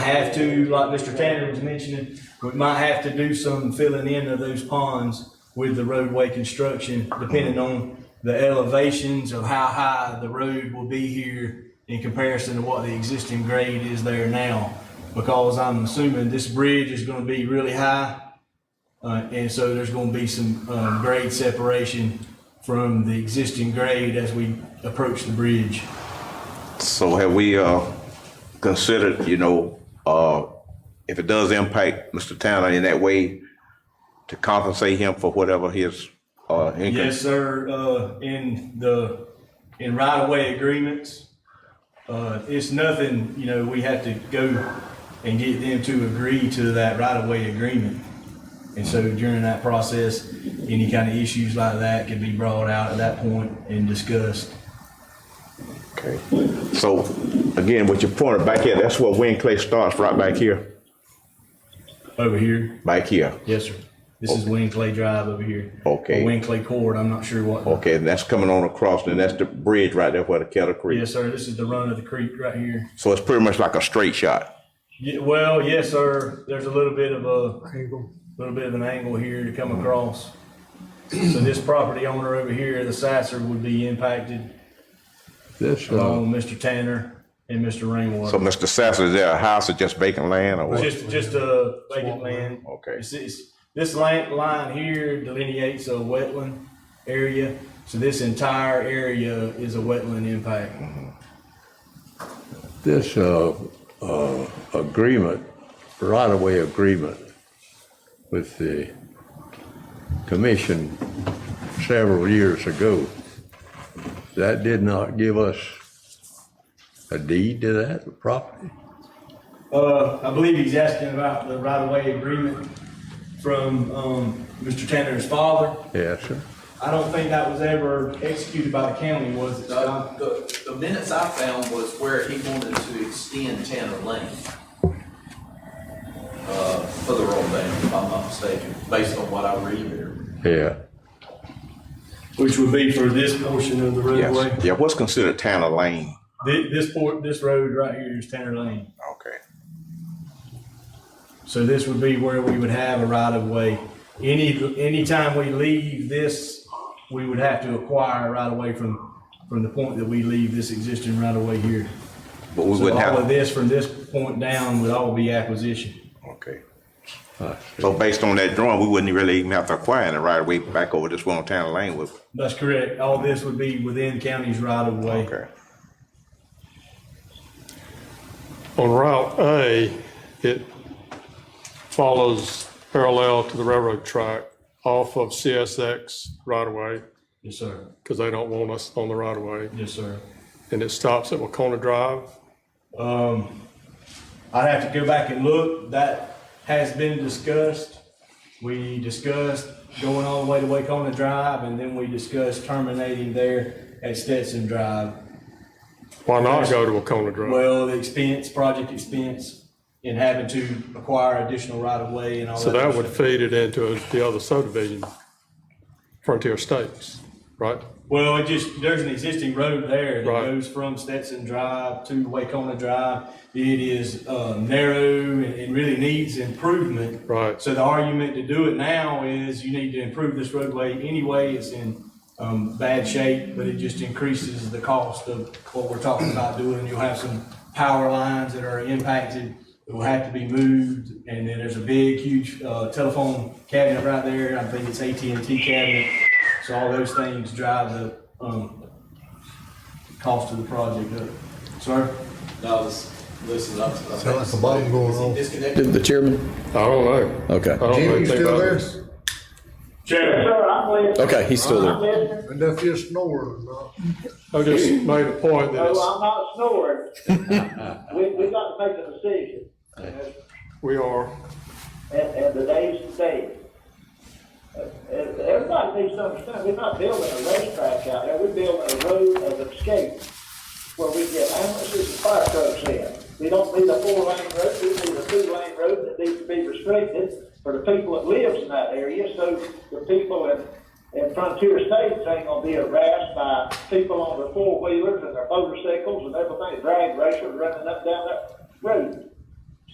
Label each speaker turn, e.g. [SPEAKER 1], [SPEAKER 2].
[SPEAKER 1] have to, like Mr. Tanner was mentioning, we might have to do some filling in of those ponds with the roadway construction, depending on the elevations of how high the road will be here in comparison to what the existing grade is there now. Because I'm assuming this bridge is gonna be really high, uh, and so there's gonna be some, um, grade separation from the existing grade as we approach the bridge.
[SPEAKER 2] So have we, uh, considered, you know, uh, if it does impact Mr. Tanner in that way, to compensate him for whatever his, uh, income?
[SPEAKER 1] Yes, sir, uh, in the, in right-of-way agreements, uh, it's nothing, you know, we have to go and get them to agree to that right-of-way agreement. And so during that process, any kind of issues like that can be brought out at that point and discussed.
[SPEAKER 2] Okay. So, again, with your pointer back here, that's where Win Clay starts, right back here,
[SPEAKER 1] Over here,
[SPEAKER 2] back here.
[SPEAKER 1] yes, sir. This is Winclay Drive over here.
[SPEAKER 2] Okay.
[SPEAKER 1] Or Winclay Court, I'm not sure what.
[SPEAKER 2] Okay, and that's coming on across, and that's the bridge right there where the Kettle Creek.
[SPEAKER 1] Yes, sir, this is the run of the creek right here.
[SPEAKER 2] So it's pretty much like a straight shot.
[SPEAKER 1] Yeah, well, yes, sir. There's a little bit of a little bit of an angle here to come across. So this property owner over here, the Sasser, would be impacted
[SPEAKER 3] This, uh,
[SPEAKER 1] along with Mr. Tanner and Mr.
[SPEAKER 2] So,
[SPEAKER 1] Rainwater.
[SPEAKER 2] Mr. Sasser, is there a house or just vacant land or what?
[SPEAKER 1] Just, just a vacant land.
[SPEAKER 2] Okay.
[SPEAKER 1] This is, this land, line here delineates a wetland area. So this entire area is a wetland impact.
[SPEAKER 3] this, uh, uh, agreement, right-of-way agreement with the commission several years ago, that did not give us a deed to that property?
[SPEAKER 1] Uh, I believe he's asking about the right-of-way agreement from, um, Mr. Tanner's father.
[SPEAKER 3] Yes, sir.
[SPEAKER 1] I don't think that was ever executed by the county, was it?
[SPEAKER 4] Uh,
[SPEAKER 1] Scott?
[SPEAKER 4] The, the minutes I found was where he wanted to extend Tanner Lane. Uh, for the road bank, if I'm not mistaken, based on what I read there.
[SPEAKER 3] Yeah,
[SPEAKER 1] Which would be for this portion of the roadway.
[SPEAKER 2] Yes. Yeah, what's considered Tanner Lane?
[SPEAKER 1] Thi- This port, this road right here is Tanner Lane.
[SPEAKER 2] Okay.
[SPEAKER 1] So this would be where we would have a right of way. Any, anytime we leave this, we would have to acquire a right of way from, from the point that we leave this existing right of way here.
[SPEAKER 2] But we
[SPEAKER 1] So
[SPEAKER 2] wouldn't
[SPEAKER 1] all of
[SPEAKER 2] have,
[SPEAKER 1] this from this point down would all be acquisition.
[SPEAKER 2] okay.
[SPEAKER 3] I see.
[SPEAKER 2] So based on that drawing, we wouldn't really even have to acquire it right away back over this one on Tanner Lane with,
[SPEAKER 1] That's correct. All this would be within county's right of way.
[SPEAKER 2] okay.
[SPEAKER 5] On Route A, it follows parallel to the railroad track off of CSX right of way,
[SPEAKER 1] Yes, sir.
[SPEAKER 5] because they don't want us on the right of way.
[SPEAKER 1] Yes, sir.
[SPEAKER 5] And it stops at Wacona Drive.
[SPEAKER 1] I'd have to go back and look. That has been discussed. We discussed going all the way to Wakeona Drive, and then we discussed terminating there at Stetson Drive.
[SPEAKER 5] Why not go to Wacona Drive?
[SPEAKER 1] Well, the expense, project expense, and having to acquire additional right of way and all that.
[SPEAKER 5] So that
[SPEAKER 1] other
[SPEAKER 5] would
[SPEAKER 1] stuff.
[SPEAKER 5] feed it into the other subdivision, Frontier States, right?
[SPEAKER 1] Well, it just, there's an existing road there that
[SPEAKER 5] Right.
[SPEAKER 1] goes from Stetson Drive to Wakeona Drive. It is, uh, narrow and, and really needs improvement.
[SPEAKER 5] Right.
[SPEAKER 1] So the argument to do it now is you need to improve this roadway anyway. It's in, um, bad shape, but it just increases the cost of what we're talking about doing. You'll have some power lines that are impacted, that will have to be moved. And then there's a big, huge, uh, telephone cabinet right there. I think it's AT&T cabinet. So all those things drive the, um, cost of the project up. Sir?
[SPEAKER 4] No, this, listen up. to- I
[SPEAKER 6] Sound like a
[SPEAKER 4] think-
[SPEAKER 6] bomb going
[SPEAKER 4] is he
[SPEAKER 6] off.
[SPEAKER 4] Disconnected.
[SPEAKER 7] The chairman?
[SPEAKER 5] I don't know.
[SPEAKER 7] Okay.
[SPEAKER 5] I don't know
[SPEAKER 6] Jimmy, you
[SPEAKER 5] anything
[SPEAKER 6] still
[SPEAKER 5] about
[SPEAKER 6] there?
[SPEAKER 5] it.
[SPEAKER 8] Sir, I'm listening.
[SPEAKER 7] Okay, he's still there.
[SPEAKER 6] And if you're snoring or not.
[SPEAKER 5] I just made a point that
[SPEAKER 8] No,
[SPEAKER 5] it's-
[SPEAKER 8] I'm not snoring. We, we got to make a decision,
[SPEAKER 5] we are
[SPEAKER 8] and, and the day's the day. Uh, and Everybody needs to understand, we're not building a racetrack out there, we're building a road of escape where we get ambulances and fire trucks in. We don't need a four-lane road, we need a two-lane road that needs to be restricted for the people that lives in that area, so the people in, in frontier states ain't gonna be harassed by people on their four-wheelers and their motorcycles and everything, drag racers running up down that road.